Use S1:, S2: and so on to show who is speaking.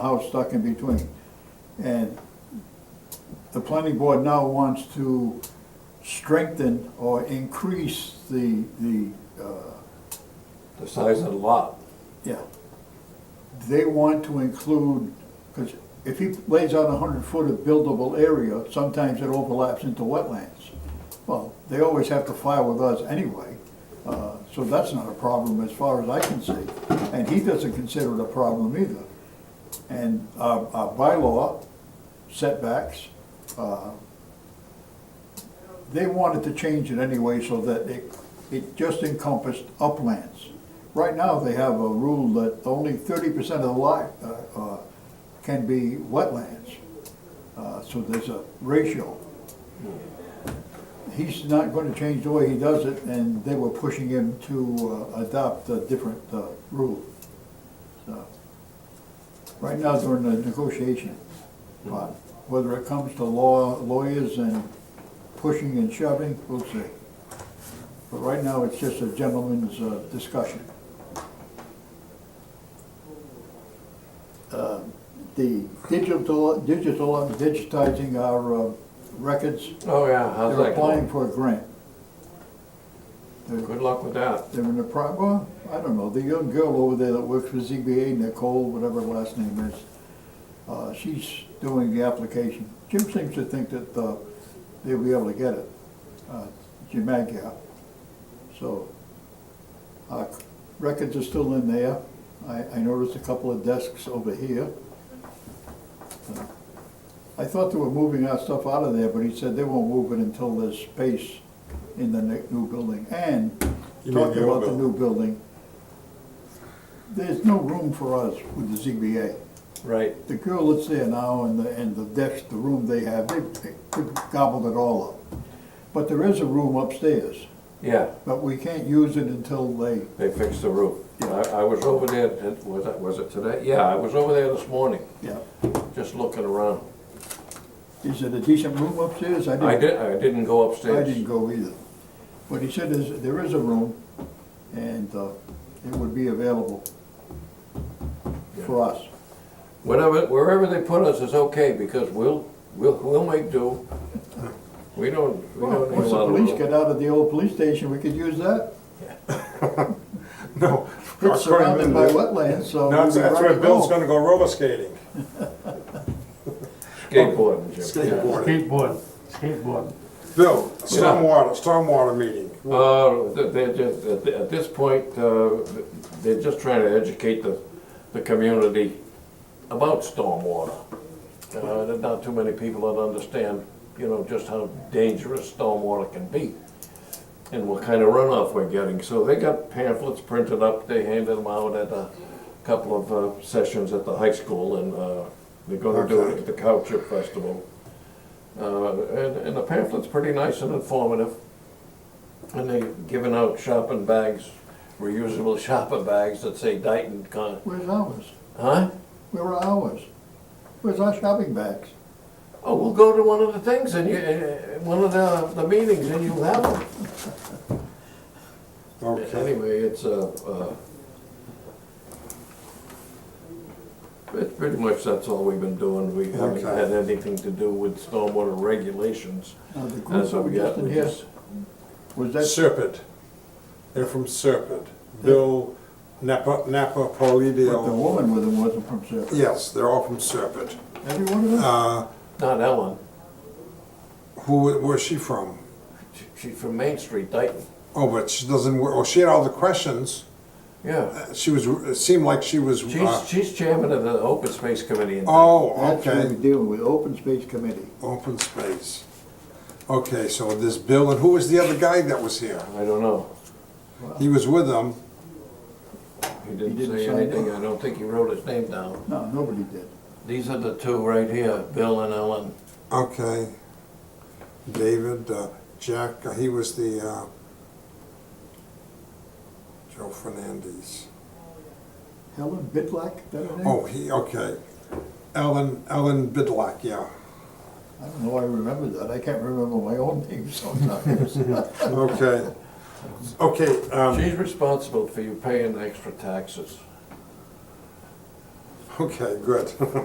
S1: house stuck in between. And the planning board now wants to strengthen or increase the, the, uh,
S2: the size of the lot.
S1: yeah. They want to include, because if he lays out a hundred foot of buildable area, sometimes it overlaps into wetlands. Well, they always have to file with us anyway, uh, so that's not a problem as far as I can see. And he doesn't consider it a problem either. And our, our bylaw setbacks, uh, they wanted to change it anyway so that it, it just encompassed uplands. Right now, they have a rule that only thirty percent of the lot, uh, uh, can be wetlands. Uh, so there's a ratio. He's not gonna change the way he does it, and they were pushing him to uh, adopt a different, uh, rule. So, Right now, they're in the negotiation part. Whether it comes to law, lawyers and pushing and shoving, we'll see. But right now, it's just a gentleman's uh, discussion. Uh, The digital, digital, digitizing our uh, records,
S2: Oh, yeah, how's
S1: they're
S2: that
S1: applying
S2: going?
S1: for a grant. They're
S2: Good luck with that.
S1: they're in the pro, well, I don't know, the young girl over there that works for ZBA, Nicole, whatever her last name is, uh, she's doing the application. Jim seems to think that, uh, they'll be able to get it, uh, Jim Agia. So, uh, records are still in there. I, I noticed a couple of desks over here. Uh, I thought they were moving our stuff out of there, but he said they won't move it until there's space in the ne- new building. And,
S3: You mean
S1: talking
S3: the old
S1: about the new building, there's no room for us with the ZBA.
S2: Right.
S1: The girl that's there now and the, and the desk, the room they have, they they gobbled it all up. But there is a room upstairs,
S2: Yeah,
S1: but we can't use it until they,
S2: they fixed the roof. I,
S1: Yeah.
S2: I was over there, it- was it, was it today? Yeah, I was over there this morning,
S1: yeah.
S2: just looking around.
S1: Is it a decent room upstairs? I
S2: I
S1: didn't,
S2: did, I didn't go
S1: I
S2: upstairs.
S1: didn't go either. But he said there's, there is a room and, uh, it would be available for us.
S2: Whatever, wherever they put us is okay, because we'll, we'll, we'll make do. We don't, we
S1: Well,
S2: don't need a
S1: once the
S2: lot of
S1: police
S2: room.
S1: get out of the old police station, we could use that.
S3: No.
S1: It's surrounded by wetlands, so. we'll
S3: That's,
S1: be
S3: that's
S1: right
S3: where
S1: at
S3: Bill's
S1: home.
S3: gonna go roller skating.
S2: Skateboarding, Jim.
S3: Skateboarding.
S4: Skateboard, skateboard.
S3: Bill, stormwater, stormwater meeting.
S2: Uh, th- they're just, at th- at this point, uh, they're just trying to educate the, the community about stormwater. Uh, there's not too many people that understand, you know, just how dangerous stormwater can be. And what kind of runoff we're getting, so they got pamphlets printed up, they handed them out at a couple of uh, sessions at the high school, and, uh, they're gonna do it at the Cow Chip Festival. Uh, and, and the pamphlet's pretty nice and informative. And they've given out shopping bags, reusable shopping bags that say Dayton Con,
S1: Where's ours?
S2: huh?
S1: Where are ours? Where's our shopping bags?
S2: Oh, we'll go to one of the things and you, uh, one of the, the meetings and you'll have them.
S3: Okay.
S2: Anyway, it's, uh, uh, it's pretty much that's all we've been doing. We haven't
S3: Okay.
S2: had anything to do with stormwater regulations.
S1: Now, Uh, the group
S2: That's
S1: that
S2: what
S1: we
S2: we
S1: just
S2: got,
S1: in
S2: we
S1: here,
S2: just,
S1: was that,
S3: Serpent. They're from Serpent. Bill, Napa, Napa,
S1: but the
S3: Polydale.
S1: woman with him wasn't from Sarah?
S3: Yes, they're all from Serpent.
S1: Every one of them?
S3: Uh,
S2: not Ellen,
S3: who, where's she from?
S2: She- she's from Main Street, Dayton.
S3: Oh, but she doesn't, wor- oh, she had all the questions.
S2: Yeah,
S3: She was, it seemed like she was, uh,
S2: she's, she's chairman of the Open Space Committee in
S3: oh,
S1: That's what
S3: okay,
S1: we're dealing with, open space committee.
S3: open space. Okay, so this Bill, and who was the other guy that was here?
S2: I don't know.
S3: He was with them.
S2: He didn't
S1: didn't
S2: say
S1: sign it.
S2: anything, I don't think he wrote his name down.
S1: No, nobody did.
S2: These are the two right here, Bill and Ellen.
S3: Okay. David, uh, Jack, uh, he was the, uh, Joe Fernandez.
S1: Helen Bitlack, that her name?
S3: Oh, he, okay. Ellen, Ellen Bidlack, yeah.
S1: I don't know why I remember that, I can't remember my own name sometimes.
S3: Okay. Okay, um,
S2: She's responsible for you paying extra taxes.
S3: Okay, good.